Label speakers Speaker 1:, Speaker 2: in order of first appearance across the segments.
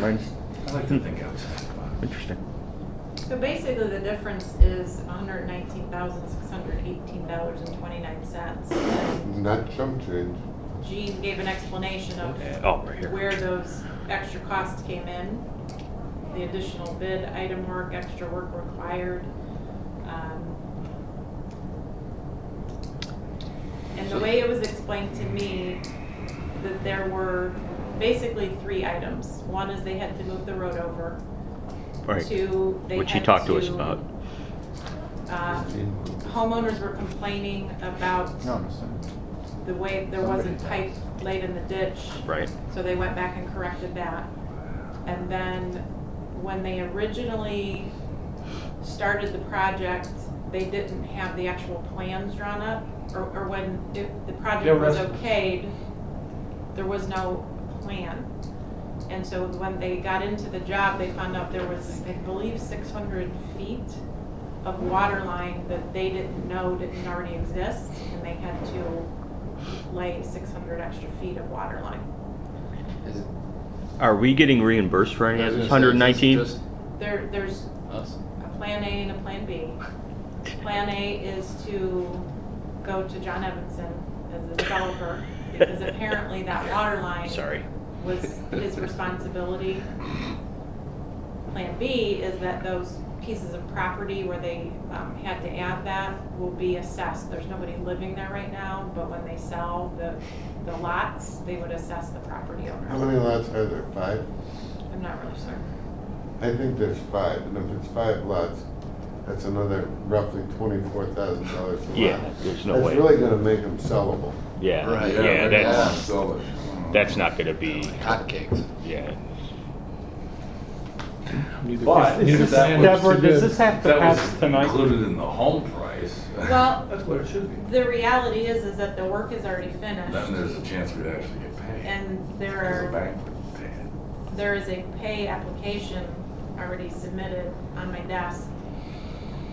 Speaker 1: Mine's
Speaker 2: I like to think outside the box.
Speaker 1: interesting.
Speaker 3: So basically, the difference is hundred nineteen thousand, six hundred eighteen dollars and twenty-nine cents.
Speaker 4: Not chump change.
Speaker 3: Gene gave an explanation of
Speaker 1: Oh, right here.
Speaker 3: where those extra costs came in, the additional bid, item work, extra work required. um, And the way it was explained to me, that there were basically three items. One is they had to move the road over.
Speaker 1: Right.
Speaker 3: Two, they
Speaker 1: Which he
Speaker 3: had
Speaker 1: talked to us
Speaker 3: to,
Speaker 1: about.
Speaker 3: uh, Homeowners were complaining about the way there wasn't pipe laid in the ditch.
Speaker 1: Right.
Speaker 3: So they went back and corrected that. And then when they originally started the project, they didn't have the actual plans drawn up, or, or when it- the
Speaker 2: Yeah,
Speaker 3: project was
Speaker 2: rest-
Speaker 3: okayed, there was no plan. And so when they got into the job, they found out there was, I believe, six hundred feet of water line that they didn't know didn't already exist, and they had to lay six hundred extra feet of water line.
Speaker 5: Is
Speaker 1: Are we getting reimbursed for any of this
Speaker 5: it?
Speaker 1: hundred and nineteen?
Speaker 5: Just
Speaker 3: There, there's
Speaker 5: us?
Speaker 3: a plan A and a plan B. Plan A is to go to John Evanson as the developer, because apparently that water line
Speaker 1: Sorry.
Speaker 3: was his responsibility. Plan B is that those pieces of property where they um, had to add that will be assessed. There's nobody living there right now, but when they sell the, the lots, they would assess the property
Speaker 4: How
Speaker 3: owner.
Speaker 4: many lots are there? Five?
Speaker 3: I'm not really certain.
Speaker 4: I think there's five, and if it's five lots, that's another roughly twenty-four thousand dollars a lot.
Speaker 1: Yeah, there's no way.
Speaker 4: That's really gonna make them sellable.
Speaker 1: Yeah,
Speaker 5: Right.
Speaker 1: yeah,
Speaker 5: Yeah,
Speaker 1: that's,
Speaker 5: yeah.
Speaker 6: So,
Speaker 1: that's not gonna be,
Speaker 5: Hotcakes.
Speaker 1: yeah.
Speaker 2: But
Speaker 7: Is
Speaker 2: if
Speaker 7: this-
Speaker 2: that was.
Speaker 7: Deborah, does this have to
Speaker 2: that was
Speaker 7: pass tonight?
Speaker 2: Included in the home price.
Speaker 3: Well-
Speaker 2: That's what it should be.
Speaker 3: The reality is, is that the work is already finished.
Speaker 2: Then there's a chance we'd actually get paid.
Speaker 3: And there
Speaker 2: Because
Speaker 3: are.
Speaker 2: the bank would pay it.
Speaker 3: There is a pay application already submitted on my desk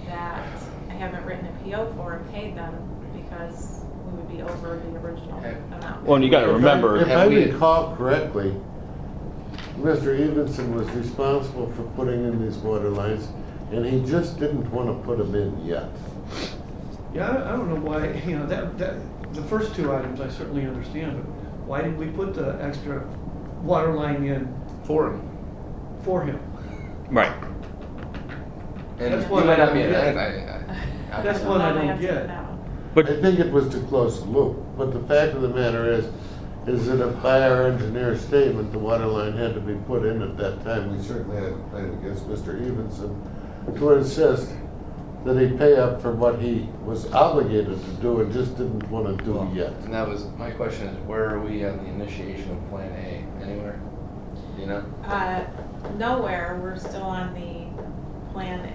Speaker 3: that I haven't written a PO for and paid them because we would be over the original amount.
Speaker 1: Well, and you gotta remember,
Speaker 4: If I
Speaker 5: have we-
Speaker 4: recall correctly, Mr. Evenson was responsible for putting in these water lines, and he just didn't wanna put them in yet.
Speaker 8: Yeah, I- I don't know why, you know, that, that, the first two items I certainly understand, but why did we put the extra water line in
Speaker 5: For him.
Speaker 8: for him?
Speaker 1: right,
Speaker 5: And
Speaker 8: That's
Speaker 5: he
Speaker 8: one
Speaker 5: might not
Speaker 8: I
Speaker 5: be an
Speaker 8: don't
Speaker 5: ad,
Speaker 8: get.
Speaker 5: I, I. I-
Speaker 8: That's
Speaker 3: So
Speaker 8: one I
Speaker 3: now they
Speaker 8: don't
Speaker 3: have to
Speaker 8: get.
Speaker 3: know.
Speaker 4: I
Speaker 1: but,
Speaker 4: think it was to close the loop, but the fact of the matter is, is that if by our engineer's statement, the water line had to be put in at that time, we certainly had a claim against Mr. Evenson to insist that he pay up for what he was obligated to do and just didn't wanna do yet.
Speaker 5: And that was, my question is, where are we on the initiation of Plan A? Anywhere? You know?
Speaker 3: Uh, nowhere, we're still on the plan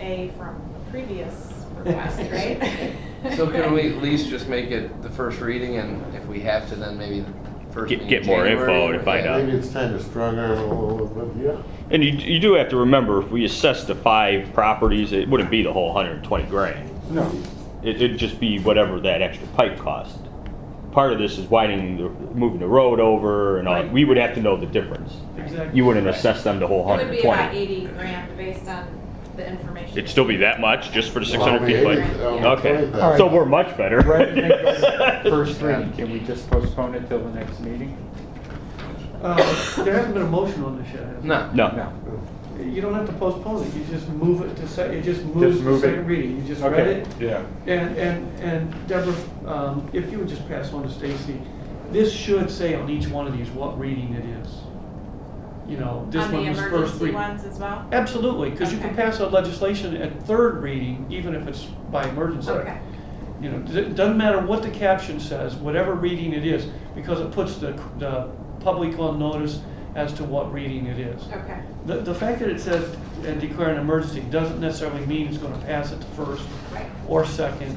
Speaker 3: A from previous request, right?
Speaker 5: So can we at least just make it the first reading and if we have to, then maybe the first
Speaker 1: Get-
Speaker 5: meeting
Speaker 1: get more
Speaker 5: in
Speaker 1: info
Speaker 5: January?
Speaker 1: to find
Speaker 5: Yeah.
Speaker 1: out.
Speaker 4: Maybe it's time to strong arm a little bit, yeah.
Speaker 1: and you, you do have to remember, if we assess the five properties, it wouldn't be the whole hundred and twenty grand.
Speaker 4: No.
Speaker 1: It, it'd just be whatever that extra pipe cost. Part of this is widening, the moving the road over and all, we would have to know the difference.
Speaker 8: Exactly.
Speaker 1: You wouldn't assess them the whole
Speaker 3: It would
Speaker 1: hundred
Speaker 3: be
Speaker 1: and
Speaker 3: about
Speaker 1: twenty.
Speaker 3: eighty grand based on the information.
Speaker 1: It'd still be that much, just for the six hundred
Speaker 4: Well, we
Speaker 1: feet pipe?
Speaker 4: ate it, um,
Speaker 1: Okay,
Speaker 4: twenty
Speaker 1: so we're much better.
Speaker 7: Rather than go to First reading,
Speaker 5: Yeah.
Speaker 7: can we just postpone it till the next meeting?
Speaker 8: Uh, there hasn't been a motion on this yet, has there?
Speaker 5: No.
Speaker 1: No.
Speaker 7: No.
Speaker 8: You don't have to postpone it, you just move it to sec, it just moves to
Speaker 7: move it.
Speaker 8: second reading, you just read
Speaker 7: Okay,
Speaker 8: it.
Speaker 7: yeah.
Speaker 8: And, and, and Deborah, um, if you would just pass on to Stacy, this should say on each one of these what reading it is. You know, this
Speaker 3: On
Speaker 8: one
Speaker 3: the
Speaker 8: was first
Speaker 3: emergency
Speaker 8: reading.
Speaker 3: ones as well?
Speaker 8: Absolutely, because you can
Speaker 3: Okay.
Speaker 8: pass a legislation at third reading, even if it's by emergency.
Speaker 3: Okay.
Speaker 8: You know, it doesn't matter what the caption says, whatever reading it is, because it puts the, the public on notice as to what reading it is.
Speaker 3: Okay.
Speaker 8: The, the fact that it says, and declare an emergency, doesn't necessarily mean it's gonna pass at the first
Speaker 3: Right.
Speaker 8: or second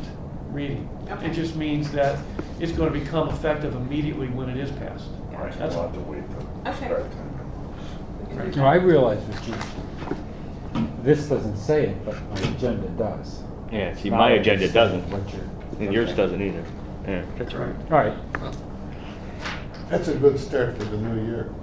Speaker 8: reading.
Speaker 3: Okay.
Speaker 8: It just means that it's gonna become effective immediately when it is passed.
Speaker 2: Right,
Speaker 8: That's-
Speaker 2: we'll have to wait till
Speaker 3: Okay.
Speaker 2: start time.
Speaker 7: No, I realize what you, this doesn't say it, but my agenda does.
Speaker 1: Yeah, see, my
Speaker 7: Now I
Speaker 1: agenda
Speaker 7: understand
Speaker 1: doesn't,
Speaker 7: What you're.
Speaker 1: and yours
Speaker 7: okay.
Speaker 1: doesn't either. Yeah, that's right.
Speaker 7: All right,
Speaker 4: That's a good start for the new year.